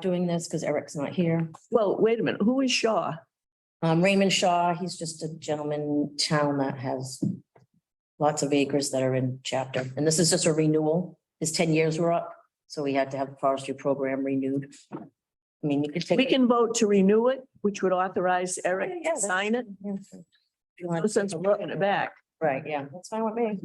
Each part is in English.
doing this because Eric's not here. Well, wait a minute, who is Shaw? Um, Raymond Shaw, he's just a gentleman in town that has lots of acres that are in chapter, and this is just a renewal. His ten years were up, so we had to have the forestry program renewed. I mean, you could take. We can vote to renew it, which would authorize Eric Yeah, to that's- sign it. Yeah, if you No want- sense of looking it back. Right, yeah, that's fine with me.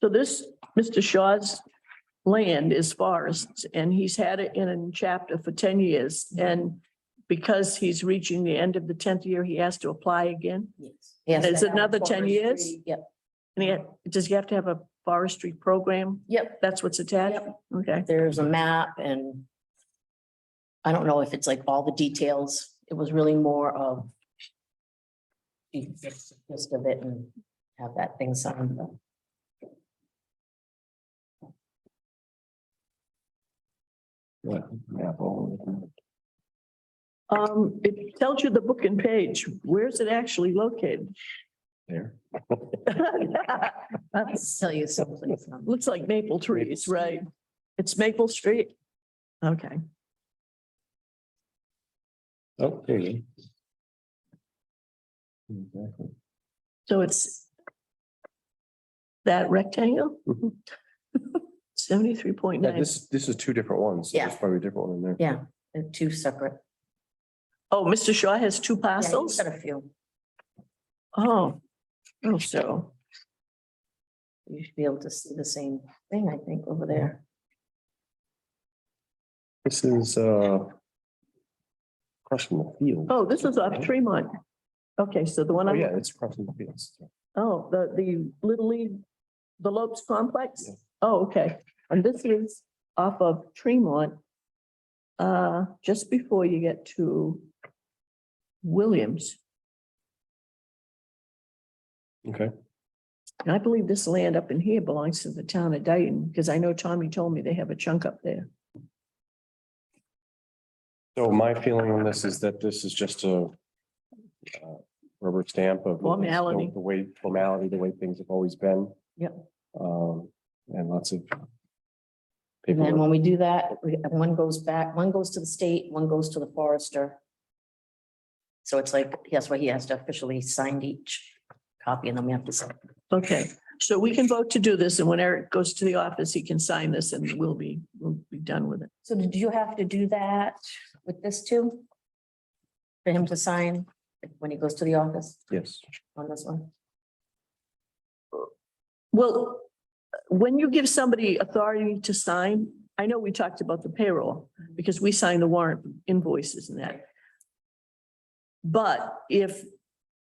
So this, Mr. Shaw's land is forests and he's had it in a chapter for ten years. Mm-hmm. And because he's reaching the end of the tenth year, he has to apply again. Yes. Is it another 10 years? Yep, And he, had- does he have to have a forestry program? yep, That's what's attached? Yep. Okay. there's a map and I don't know if it's like all the details. It was really more of the gist of it and have that thing signed. Um, it tells you the book and page. Where's it actually located? There. I'll tell you something. Looks like maple trees, Maple. right? It's Maple Street? Okay. Okay. Exactly. So it's that rectangle? Mhm. Seventy-three point Yeah, nine. this, this is two different ones. so There's Yeah. probably a different one in there. Yeah, they're two separate. Oh, Mr. Shaw has two Yeah, you've parcels? Got a few. Oh, oh, so, You should be able to see the same thing, I think, over there. This is, uh, crushing the field. oh, this is off Tremont. Okay, so the one, Oh, I'm- yeah, it's crushing the fields. oh, the, the Little League, the Lopes Complex? Yeah. Oh, okay. And this is off of Tremont. Uh, just before you get to Williams. Okay, And I believe this land up in here belongs to the town of Dayton, because I know Tommy told me they have a chunk up there. so my feeling on this is that this is just a uh, rubber stamp of. the- Formality. The way, formality, the way things have always been. Yep. Um, and lots of And then paperwork. when we do that, we- one goes back, one goes to the state, one goes to the forester. So it's like, that's why he has to officially sign each copy and then we have to sign. Okay, so we can vote to do this, and when Eric goes to the office, he can sign this and we'll be, we'll be done with it. So did you have to do that with this too? For him to sign when he goes to the office Yes. on this one? Well, when you give somebody authority to sign, I know we talked about the payroll, because we sign the warrant invoices and that. But if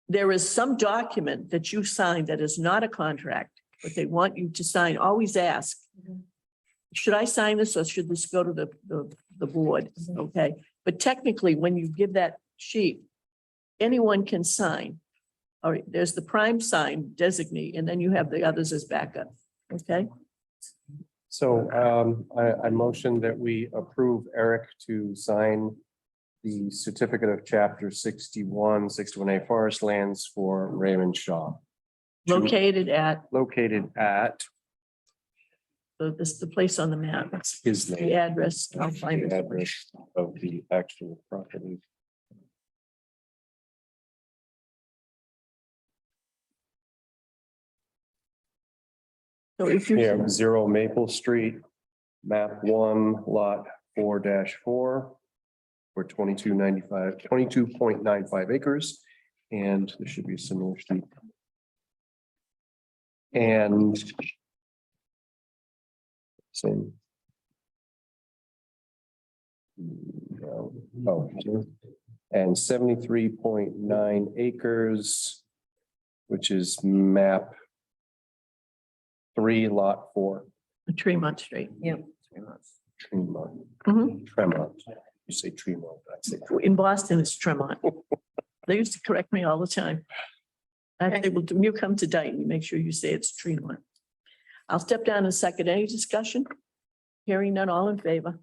there is some document that you sign that is not a contract, but they want you to sign, always ask, should I sign this or should this go to the, the, the board? Okay, but technically, when you give that sheet, anyone can sign. All right, there's the prime sign designee, and then you have the others as backup, okay? So um, I, I motion that we approve Eric to sign the certificate of chapter 61, 61 A Forest Lands for Raymond Shaw. To- Located at, Located at the this, the place on the map, his the name. address, I'll find the it. address Of the actual property. So if Yeah, you, zero Maple Street, map one, lot four four. For twenty-two ninety-five, twenty-two point nine five acres, and there should be a similar sheet. And. Same. No, oh, And seventy-three point nine acres, which is map three lot four. Tremont Street. Yeah. Tremont, Mhm. Tremont. You say Tremont, I say. In Boston, it's Tremont. They used to correct me all the time. I say, well, when you come to Dayton, you make sure you say it's Tremont. I'll step down in a second. Any discussion? Hearing none, all in favor?